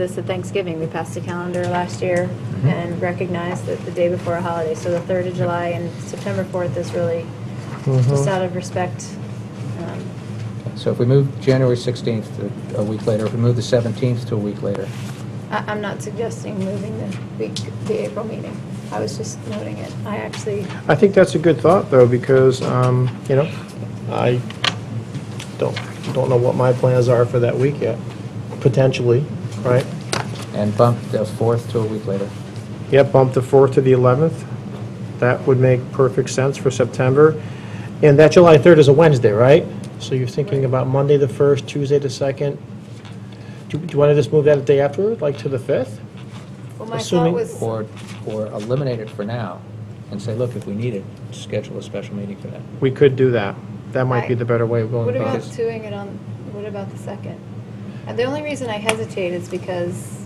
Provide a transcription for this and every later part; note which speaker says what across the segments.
Speaker 1: This at Thanksgiving, we passed a calendar last year and recognized that the day before a holiday, so the 3rd of July and September 4th is really just out of respect. um,
Speaker 2: So if we move January 16th to a week later, if we move the 17th to a week later,
Speaker 1: I- I'm not suggesting moving the week, the April meeting. I was just noting it. I actually,
Speaker 3: I think that's a good thought, though, because, um, you know, I don't, don't know what my plans are for that week yet, potentially, right?
Speaker 2: and bump the 4th to a week later.
Speaker 3: Yeah, bump the 4th to the 11th. That would make perfect sense for September. And that July 3rd is a Wednesday, right? So you're thinking about Monday the 1st, Tuesday the 2nd. Do do you want to just move that a day afterward, like to the 5th?
Speaker 1: well, my thought
Speaker 3: Assuming-
Speaker 1: was,
Speaker 2: Or, or eliminate it for now and say, look, if we need it, schedule a special meeting for that.
Speaker 3: We could do that. That might be the better way of
Speaker 1: what
Speaker 3: going about
Speaker 1: about
Speaker 3: it.
Speaker 1: doing it on, what about the 2nd? And the only reason I hesitate is because,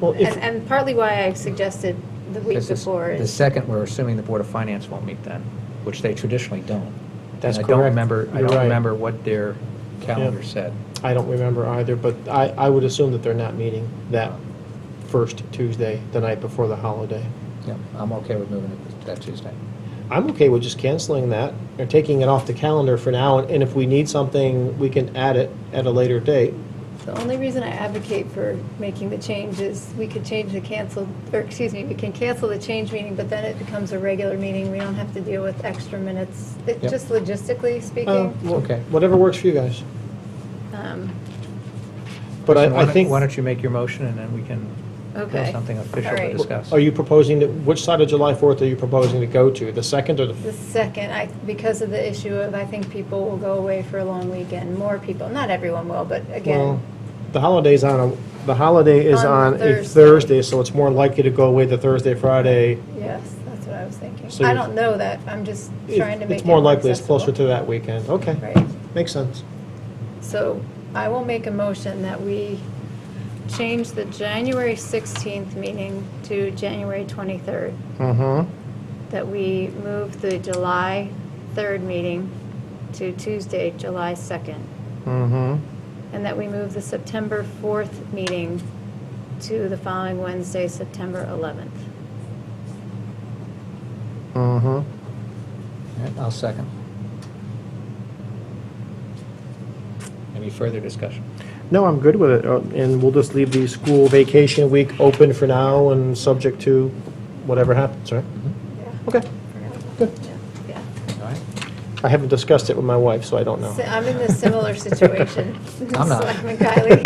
Speaker 3: Well,
Speaker 1: and
Speaker 3: if-
Speaker 1: and partly why I suggested the week
Speaker 2: Because this-
Speaker 1: before
Speaker 2: The
Speaker 1: is,
Speaker 2: second, we're assuming the Board of Finance won't meet then, which they traditionally don't.
Speaker 3: That's
Speaker 2: And I don't
Speaker 3: correct.
Speaker 2: remember, I
Speaker 3: You're
Speaker 2: don't
Speaker 3: right.
Speaker 2: remember what their calendar said.
Speaker 3: I don't remember either, but I, I would assume that they're not meeting that first Tuesday, the night before the holiday.
Speaker 2: Yeah, I'm okay with moving it to that Tuesday.
Speaker 3: I'm okay with just canceling that, or taking it off the calendar for now, and if we need something, we can add it at a later date.
Speaker 1: the only reason I advocate for making the change is we could change the cancel, or excuse me, we can cancel the change meeting, but then it becomes a regular meeting. We don't have to deal with extra minutes. It-
Speaker 2: Yep.
Speaker 1: Just logistically
Speaker 3: Uh,
Speaker 1: speaking.
Speaker 3: well,
Speaker 2: Okay.
Speaker 3: Whatever works for you guys.
Speaker 1: um,
Speaker 3: But
Speaker 2: So
Speaker 3: I,
Speaker 2: why
Speaker 3: I
Speaker 2: don't-
Speaker 3: think,
Speaker 2: Why don't you make your motion and then we can
Speaker 1: Okay.
Speaker 2: have something official
Speaker 1: All
Speaker 2: to
Speaker 1: right.
Speaker 2: discuss.
Speaker 3: are you proposing, to- which side of July 4th are you proposing to go to, the second or the?
Speaker 1: The second, I, because of the issue of, I think people will go away for a long weekend, more people, not everyone will, but
Speaker 3: Well,
Speaker 1: again,
Speaker 3: The holiday's on, a the holiday is
Speaker 1: On
Speaker 3: on a
Speaker 1: Thursday.
Speaker 3: Thursday, so it's more likely to go away the Thursday, Friday.
Speaker 1: yes, that's what I was thinking.
Speaker 3: So
Speaker 1: I
Speaker 3: you're-
Speaker 1: don't know that, I'm just
Speaker 3: It-
Speaker 1: trying to make
Speaker 3: It's
Speaker 1: it
Speaker 3: more
Speaker 1: more
Speaker 3: likely it's closer to
Speaker 1: accessible.
Speaker 3: that weekend. Okay.
Speaker 1: Right,
Speaker 3: Makes sense.
Speaker 1: so I will make a motion that we change the January 16th meeting to January 23rd,
Speaker 3: Mm-hmm.
Speaker 1: that we move the July 3rd meeting to Tuesday, July 2nd.
Speaker 3: Mm-hmm.
Speaker 1: And that we move the September 4th meeting to the following Wednesday, September 11th.
Speaker 3: Mm-hmm.
Speaker 2: All right, I'll second. Any further discussion?
Speaker 3: No, I'm good with it, Uh, and we'll just leave the school vacation week open for now and subject to whatever happens, right?
Speaker 2: Mm-hmm.
Speaker 3: Okay. Good.
Speaker 1: Yeah.
Speaker 2: All right?
Speaker 3: I haven't discussed it with my wife, so I don't know.
Speaker 1: Si- I'm in a similar situation.
Speaker 2: I'm not.
Speaker 1: Selectman Kylie.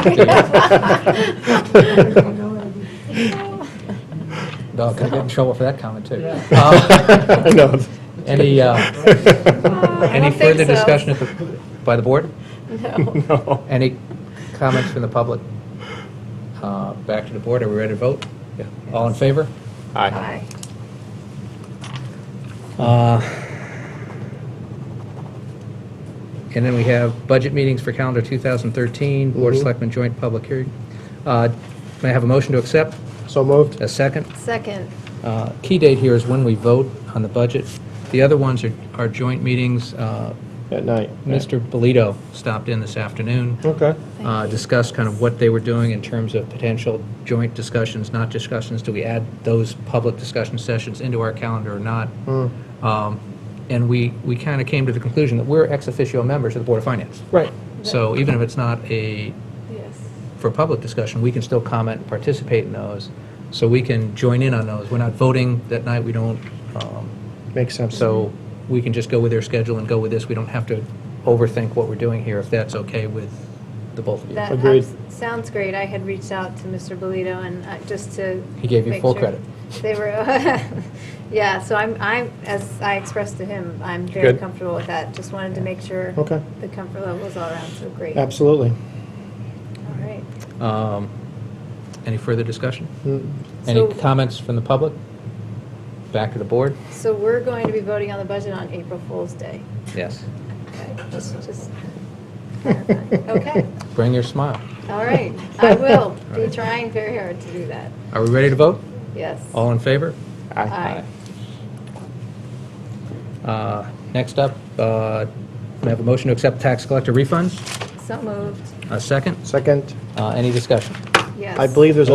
Speaker 2: No, I could get in trouble for that comment, too.
Speaker 4: Yeah.
Speaker 2: Uh,
Speaker 3: I know.
Speaker 2: Any, uh,
Speaker 1: I
Speaker 2: any
Speaker 1: don't think
Speaker 2: further
Speaker 1: so.
Speaker 2: discussion at the- by the board?
Speaker 1: No.
Speaker 3: No.
Speaker 2: Any comments from the public? Uh, Back to the board, are we ready to vote?
Speaker 3: Yeah.
Speaker 2: All in favor?
Speaker 3: Aye.
Speaker 1: Aye.
Speaker 2: Uh, And then we have budget meetings for calendar 2013, Board of
Speaker 3: Mhm.
Speaker 2: Selectmen Joint Public Hearing. Uh, May I have a motion to accept?
Speaker 3: So moved.
Speaker 2: A second?
Speaker 1: Second,
Speaker 2: Uh, Key date here is when we vote on the budget. The other ones are are joint meetings. Uh,
Speaker 3: At night.
Speaker 2: Mr. Bolito stopped in this afternoon,
Speaker 3: Okay.
Speaker 2: uh, discussed kind of what they were doing in terms of potential joint discussions, not discussions. Do we add those public discussion sessions into our calendar or not?
Speaker 3: Mm.
Speaker 2: Um, And we, we kind of came to the conclusion that we're ex officio members of the Board of Finance.
Speaker 3: Right.
Speaker 2: So even if it's not a,
Speaker 1: yes.
Speaker 2: for public discussion, we can still comment and participate in those. So we can join in on those. We're not voting that night, we don't, um,
Speaker 3: Makes sense.
Speaker 2: so we can just go with their schedule and go with this. We don't have to overthink what we're doing here, if that's okay with the both of you.
Speaker 1: That
Speaker 3: Agreed.
Speaker 1: abs- sounds great. I had reached out to Mr. Bolito and uh, just to.
Speaker 2: He gave you
Speaker 1: make
Speaker 2: full
Speaker 1: sure
Speaker 2: credit.
Speaker 1: They were, yeah, so I'm, I'm, as I expressed to him, I'm very
Speaker 3: Good.
Speaker 1: comfortable with that. Just wanted to make sure.
Speaker 3: Okay.
Speaker 1: The comfort level is all around, so great. All
Speaker 3: Absolutely.
Speaker 1: right.
Speaker 2: Um, Any further discussion?
Speaker 3: Mm.
Speaker 2: Any
Speaker 1: So-
Speaker 2: comments from the public? Back to the board?
Speaker 1: So we're going to be voting on the budget on April Fool's Day.
Speaker 2: Yes.
Speaker 1: Okay, just, just. Okay,
Speaker 2: Bring your smile.
Speaker 1: all right. I will be trying very hard to do that.
Speaker 2: Are we ready to vote?
Speaker 1: Yes.
Speaker 2: All in favor?
Speaker 1: Aye.
Speaker 2: Uh, Next up, uh, we have a motion to accept tax collector refunds.
Speaker 1: So moved.
Speaker 2: A second.
Speaker 3: Second.
Speaker 2: Uh, Any discussion?
Speaker 1: Yes.
Speaker 3: I believe there's a